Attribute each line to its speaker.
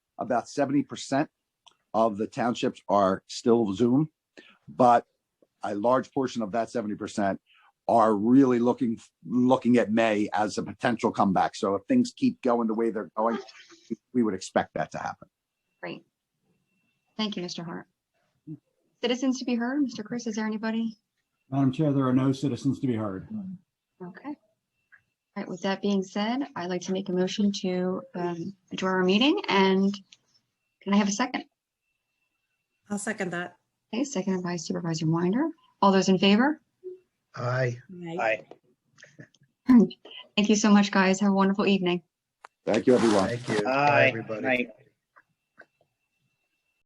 Speaker 1: about seventy percent of the townships are still Zoom, but a large portion of that seventy percent are really looking, looking at May as a potential comeback. So if things keep going the way they're going, we would expect that to happen.
Speaker 2: Great. Thank you, Mr. Hart. Citizens to be heard. Mr. Chris, is there anybody?
Speaker 3: Madam Chair, there are no citizens to be heard.
Speaker 2: Okay. All right, with that being said, I'd like to make a motion to um, adjourn our meeting and can I have a second?
Speaker 4: I'll second that.
Speaker 2: Okay, seconded by Supervisor Winder. All those in favor?
Speaker 5: Aye.
Speaker 6: Aye.
Speaker 2: Thank you so much, guys. Have a wonderful evening.
Speaker 1: Thank you, everyone.
Speaker 5: Thank you. Bye,
Speaker 6: Aye.
Speaker 5: Everybody.
Speaker 6: Aye.